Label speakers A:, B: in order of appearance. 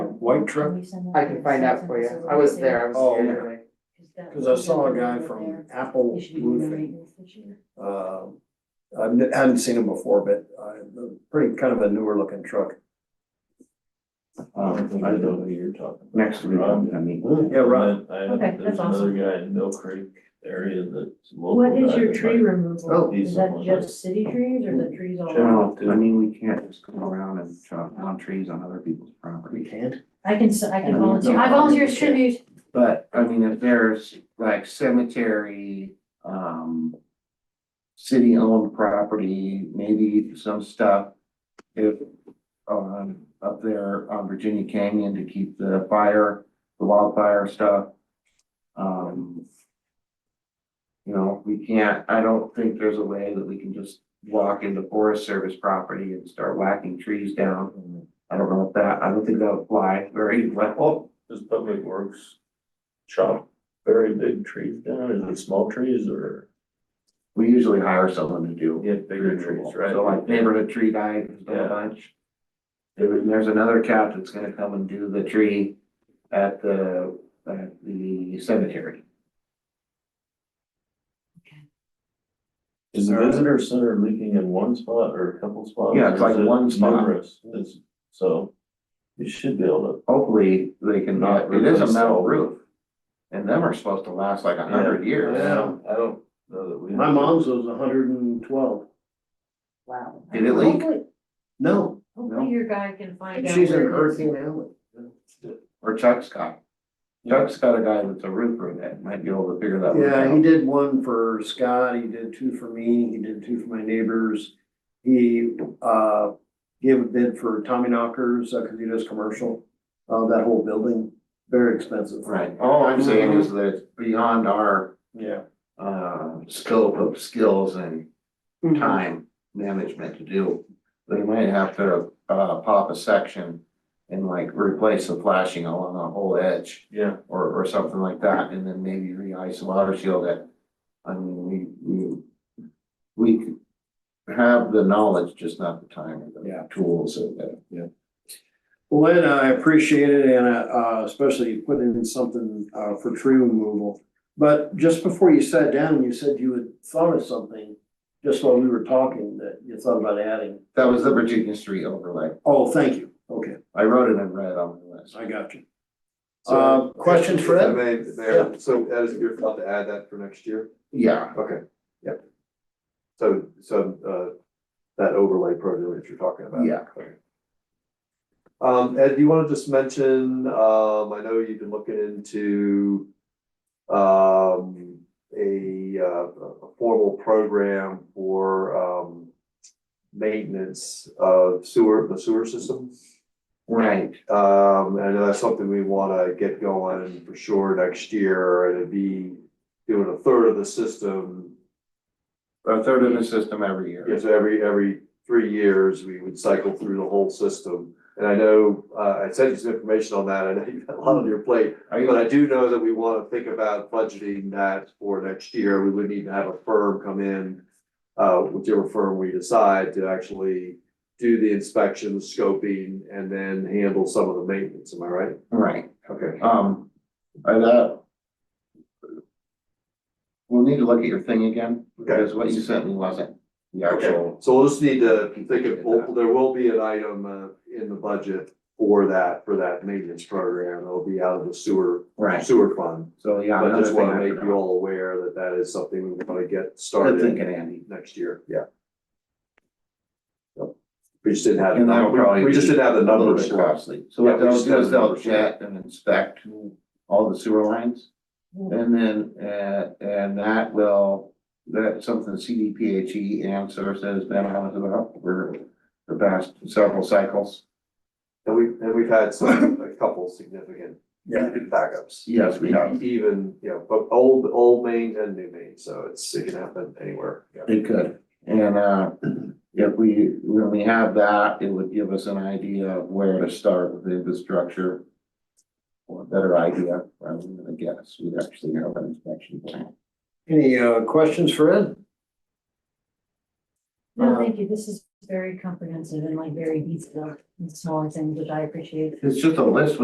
A: white truck?
B: I can find out for you. I was there, I was
A: Oh,
B: here today.
A: Cause I saw a guy from Apple Roofing, uh, I hadn't seen him before, but uh, pretty kind of a newer looking truck.
C: Um, I don't know who you're talking. about.
D: Next week,
C: Rob.
D: I mean,
A: Yeah, right.
C: And I-
B: Okay, that's
C: There's another
B: awesome.
C: guy in Mill Creek area that's local.
B: What is
C: guy
B: your
C: that
B: tree
C: might-
A: Oh.
B: removal? Is that
C: Decent one.
B: just city trees or the trees all?
D: general, I mean, we can't just go around and chop down trees on other people's property.
A: can't?
B: I can, s- I can
D: No,
B: volunteer.
D: no,
B: I
D: no,
B: volunteer
D: you
B: as
D: can't.
B: tribute.
D: But, I mean, if there's like cemetery, um. City owned property, maybe some stuff. If, um, up there on Virginia Canyon to keep the fire, the wildfire stuff. Um. You know, we can't, I don't think there's a way that we can just walk into Forest Service property and start whacking trees down. I don't know if that, I don't think that would fly very well.
C: Does Public Works chop very big trees down? Is it small trees or?
D: We usually hire someone to do.
C: Yeah, bigger trees, right?
D: So like neighborhood tree guy, who's done
C: Yeah.
D: a bunch. There- there's another cat that's gonna come and do the tree at the, at the cemetery.
C: Is the visitor center leaking in one spot or a couple spots?
D: Yeah, it's
C: or is
D: like
C: it
D: one spot.
C: numerous? It's, so you should be able
D: Hopefully, they can,
C: Yeah,
D: it is a
C: replace
D: metal
C: all-
D: roof. And them are supposed to last like a
C: to.
D: hundred years.
C: I don't, I don't know that we.
A: Uh, My mom's was hundred and twelve.
B: Wow.
D: Did it leak?
B: Hopefully-
A: No,
B: Hopefully your guy can find out.
A: she's in
B: where it is.
A: Hurricane Alley.
D: Or Chuck's got. Chuck's got a guy that's a roofer that might be able to figure that one
A: Yeah, he
D: out.
A: did one for Scott, he did two for me, he did two for my neighbors. He, uh, gave a bid for Tommy Knockers, uh, cause he does commercial, uh, that whole building, very expensive.
D: Right, all I'm saying is that it's beyond our,
A: Yeah.
D: uh, scope of skills and time management to do. They might have to uh pop a section and like replace the flashing along the whole edge
C: Yeah,
D: or or something like that, and then maybe re-ice water shield it. I mean, we we we could have the knowledge, just not the time or
A: Yeah.
D: the tools or the.
A: Well, Lynn, I appreciate it and, uh, especially you putting in something, uh, for tree removal. But just before you sat down, you said you had thought of something, just while we were talking, that you thought about adding.
D: That was the Virginia Street overlay.
A: Oh, thank you. Okay,
D: I wrote it in red on the list.
A: I got you.
E: So-
A: Uh, questions for
E: If I
A: Ed?
E: may, Mayor, so Ed, is it your thought to add that for next year?
D: Yeah,
E: Okay. Yep. So, so, uh, that overlay program that you're talking about.
D: Yeah.
E: Okay. Um, Ed, do you wanna just mention, um, I know you've been looking into, um, a, uh, a formal program for, um, maintenance of sewer, the sewer system?
D: right.
E: Um, and I know that's something we wanna get going for sure next year, and it'd be doing a third of the system.
D: A third of the system every year.
E: Yeah, so every, every three years, we would cycle through the whole system. And I know, uh, I sent you some information on that, I know you've got a lot on your plate,
D: Are you
E: but I do know that we wanna think about budgeting that for next year, we would need to have a firm come in. Uh, whichever firm we decide to actually do the inspection, scoping, and then handle some of the maintenance, am I right?
D: right?
E: Okay.
D: Um, I, that. We'll need to look at your thing again,
E: Okay,
D: because what you sent me wasn't the
E: okay,
D: actual,
E: so we'll just need to think of, well, there will be an item uh in the budget for that, for that maintenance program, it'll be out of the sewer,
D: right,
E: sewer fund.
D: so yeah.
E: But I
D: another
E: just
D: thing
E: wanna
D: I
E: make you
D: forgot.
E: all aware that that is something we wanna get
D: Good
E: started
D: thinking, Andy.
E: next year, yeah. Yep. We just didn't have,
D: And that'll probably
E: we, we just
D: be
E: didn't have the
D: A little
E: numbers
D: bit
E: for us.
D: costly, so
E: Yeah,
D: what
E: we
D: they'll
E: just
D: do is
E: have the
D: they'll
E: numbers, yeah.
D: jet and inspect all the sewer lines. And then, uh, and that will, that's something CDPHE E answer has been on about for the past several cycles.
E: And we, and we've had some, a couple significant backups.
D: Yes, we have,
E: Even, you know, but old, old main and new main, so it's, it can happen anywhere, yeah.
D: It could, and uh, if we, when we have that, it would give us an idea of where to start with the infrastructure. Or a better idea, rather than a guess, we actually have an inspection plan.
A: Any, uh, questions for Ed?
B: No, thank you. This is very comprehensive and like very detailed. It's all things that I appreciate.
D: It's just a list